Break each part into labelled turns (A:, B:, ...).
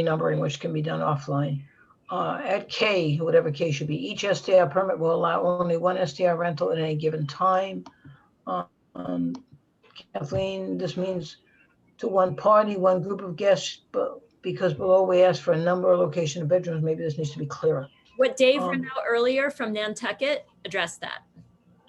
A: renumbering, which can be done offline. Uh, At K, whatever K should be, each STR permit will allow only one STR rental at any given time. Uh, um, Kathleen, this means to one party, one group of guests, but because below we asked for a number or location of bedrooms, maybe this needs to be clearer.
B: What Dave
A: Um,
B: ran out earlier from Nantucket addressed that,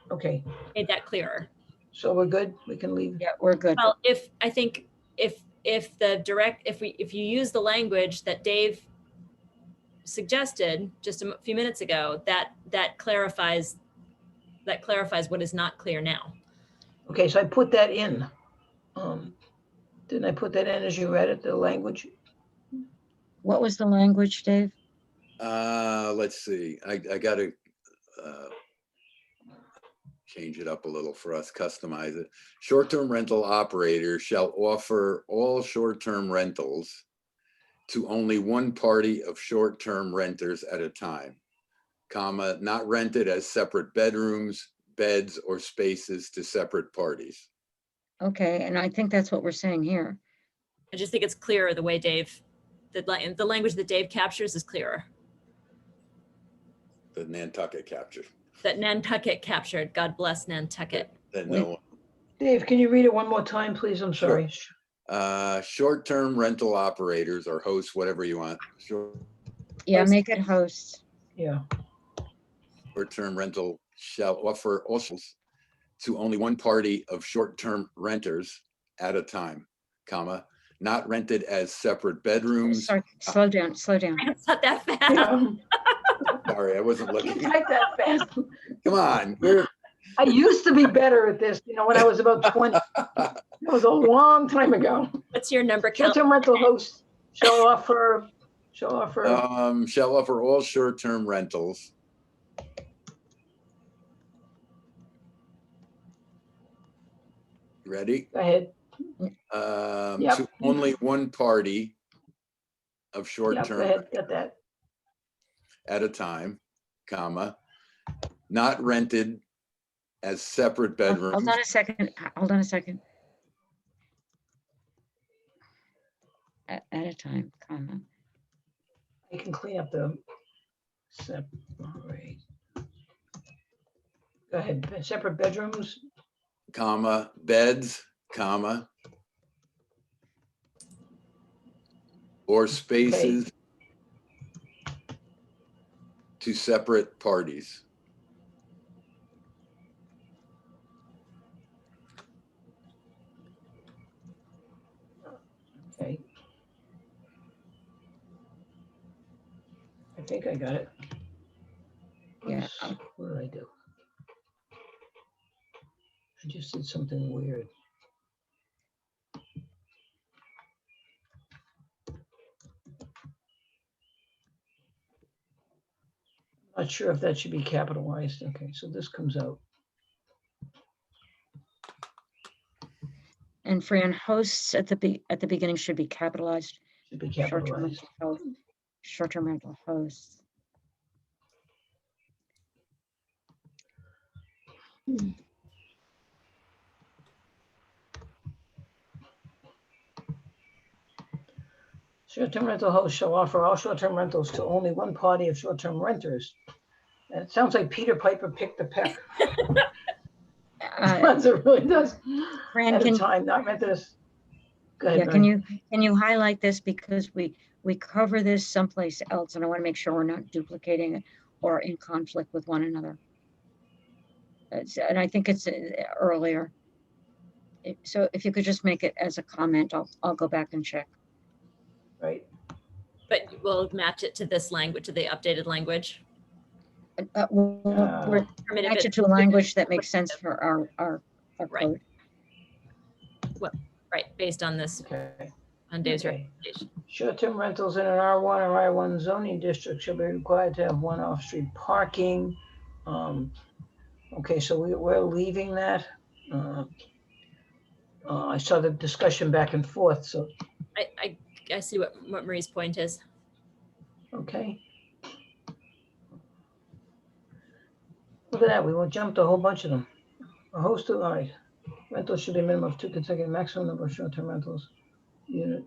A: Okay,
B: made that clearer.
A: so we're good? We can leave?
C: Yeah, we're good.
B: Well, if, I think, if, if the direct, if we, if you use the language that Dave suggested just a m- few minutes ago, that, that clarifies, that clarifies what is not clear now.
A: Okay, so I put that in. Um, Didn't I put that in as you read it, the language?
C: What was the language, Dave?
D: Uh, let's see, I, I gotta, uh, change it up a little for us, customize it. Short-term rental operators shall offer all short-term rentals to only one party of short-term renters at a time, comma, not rented as separate bedrooms, beds, or spaces to separate parties.
C: Okay, and I think that's what we're saying here.
B: I just think it's clearer the way Dave, the, la- the language that Dave captures is clearer,
D: The Nantucket capture,
B: that Nantucket captured. God bless Nantucket.
D: that
C: Wait.
D: no one
A: Dave, can you read it one more time, please? I'm sorry.
D: Uh, short-term rental operators or hosts, whatever you want. Short-term
C: Yeah,
B: Host.
C: make it host.
A: Yeah,
D: rental shall offer also to only one party of short-term renters at a time, comma, not rented as separate bedrooms.
C: Sorry, slow down, slow down.
B: It's not that fast.
A: yeah.
D: Sorry, I wasn't
A: Can't
D: looking.
A: type that fast.
D: Come on, we're,
A: I used to be better at this, you know, when I was about 20. That was a long time ago.
B: What's your number count?
A: Short-term rental hosts shall offer, shall offer,
D: um, shall offer all short-term rentals. Ready?
A: go ahead,
D: um,
A: Yep.
D: to only one party
A: yeah,
D: of
A: go
D: short-term
A: ahead, got that.
D: at a time, comma, not rented as separate bedrooms.
C: Oh, Hold on a second, h- hold on a second. At, at a time, comma.
A: I can clean up the, separate. Go ahead, be- separate bedrooms,
D: Comma, beds, comma, or spaces to separate parties.
A: okay. I think I got it.
C: Yeah,
A: Oops, What did I do? I just did something weird. Not sure if that should be capitalized. Okay, so this comes out.
C: And Fran, hosts at the be, at the beginning should be capitalized.
A: Should be
C: Short-term
A: capitalized.
C: rental host. Short-term rental hosts.
A: Short-term rental hosts shall offer all short-term rentals to only one party of short-term renters. And it sounds like Peter Piper picked the peck.
C: Uh,
A: It really does.
C: Fran,
A: At a
C: can,
A: time, not meant this. Go
C: yeah,
A: ahead,
C: can
A: Mary.
C: you, can you highlight this because we, we cover this someplace else and I want to make sure we're not duplicating it or in conflict with one another. It's- And I think it's uh, earlier. If- So if you could just make it as a comment, I'll, I'll go back and check.
A: Right,
B: But we'll match it to this language, to the updated language.
C: Uh, uh, we'll-
A: Yeah.
C: we'll
B: Affirmative
C: Match it to a language that makes sense for our, our, our
B: Right.
C: code.
B: Right, based on this,
A: okay.
B: on Dave's
A: okay.
B: recommendation.
A: Short-term rentals in an R1 or I1 zoning district shall be required to have one off-street parking. Um, Okay, so we, we're leaving that. Uh, uh, I saw the discussion back and forth, so,
B: I, I, I see what, what Marie's point is.
A: okay. Look at that, we will jump to a whole bunch of them. A host of, all right, rentals should be a minimum of two consecutive maximum number of short-term rentals. Unit